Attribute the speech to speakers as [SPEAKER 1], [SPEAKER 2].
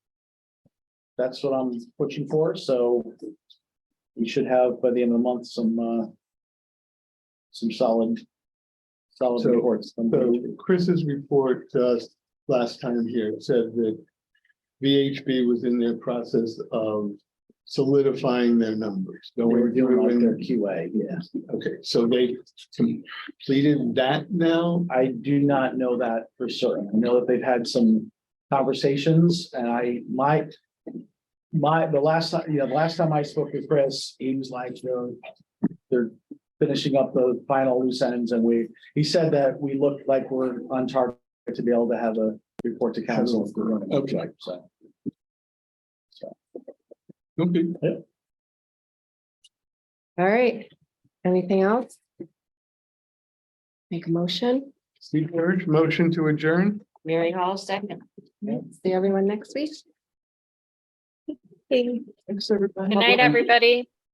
[SPEAKER 1] that's what I'm pushing for, so we should have by the end of the month some, uh, some solid, solid
[SPEAKER 2] So-
[SPEAKER 1] reports. from
[SPEAKER 2] So
[SPEAKER 1] VHB.
[SPEAKER 2] Chris's report to us last time here said that VHB was in their process of solidifying their numbers.
[SPEAKER 1] They were
[SPEAKER 2] going
[SPEAKER 1] doing
[SPEAKER 2] through
[SPEAKER 1] like
[SPEAKER 2] and-
[SPEAKER 1] their QA, yeah.
[SPEAKER 2] Okay, so they completed that now?
[SPEAKER 1] I do not know that for certain. I know that they've had some conversations and I, my. My, the last time, you know, the last time I spoke with Chris, he was like, you know, they're finishing up the final loose ends and we, he said that we look like we're on target to be able to have a report to council. if we're running.
[SPEAKER 2] Okay.
[SPEAKER 1] So,
[SPEAKER 2] Okay.
[SPEAKER 3] All right, anything else? Make a motion,
[SPEAKER 2] Steve Parrish, motion to adjourn?
[SPEAKER 4] Mary Hall, second.
[SPEAKER 3] see everyone next week.
[SPEAKER 4] Good night, everybody.